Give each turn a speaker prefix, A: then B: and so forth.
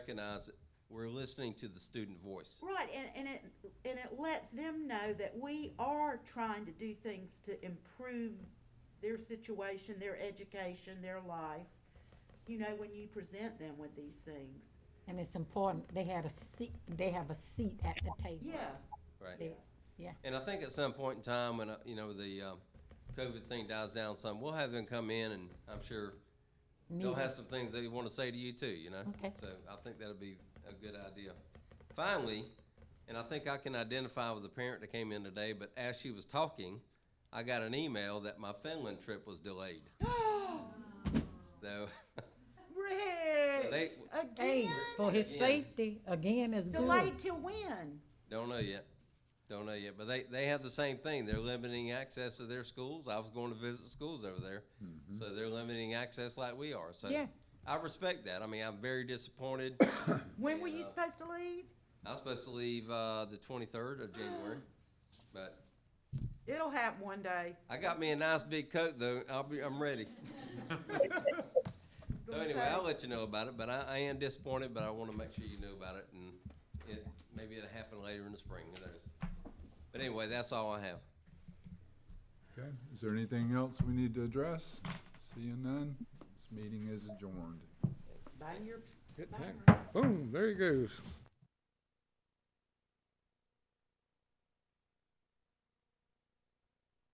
A: recognize it. We're listening to the student voice.
B: Right, and, and it, and it lets them know that we are trying to do things to improve their situation, their education, their life. You know, when you present them with these things.
C: And it's important, they had a seat, they have a seat at the table.
B: Yeah,
A: Right.
C: They- Yeah,
A: And I think at some point in time, when, uh, you know, the um, COVID thing dies down some, we'll have them come in and I'm sure they'll
C: meeting.
A: have some things they want to say to you too, you know?
C: Okay.
A: So I think that'll be a good idea. Finally, and I think I can identify with the parent that came in today, but as she was talking, I got an email that my Finland trip was delayed. Though,
B: Rick,
A: they,
C: Hey,
B: again,
C: for his
A: Again.
C: safety, again, is good.
B: delayed till when?
A: Don't know yet. Don't know yet. But they, they have the same thing. They're limiting access to their schools. I was going to visit schools over there. So they're limiting access like we are. So
C: Yeah.
A: I respect that. I mean, I'm very disappointed.
B: When were you
A: Yeah.
B: supposed to leave?
A: I was supposed to leave uh, the 23rd of January. But
B: It'll happen one day.
A: I got me a nice big coat, though. I'll be, I'm ready. So anyway, I'll let you know about it. But I, I am disappointed, but I want to make sure you know about it. And it, maybe it'll happen later in the spring. Who knows? But anyway, that's all I have.
D: Okay, is there anything else we need to address? Seeing none, this meeting is adjourned.
B: Bang your
E: Boom, there he goes.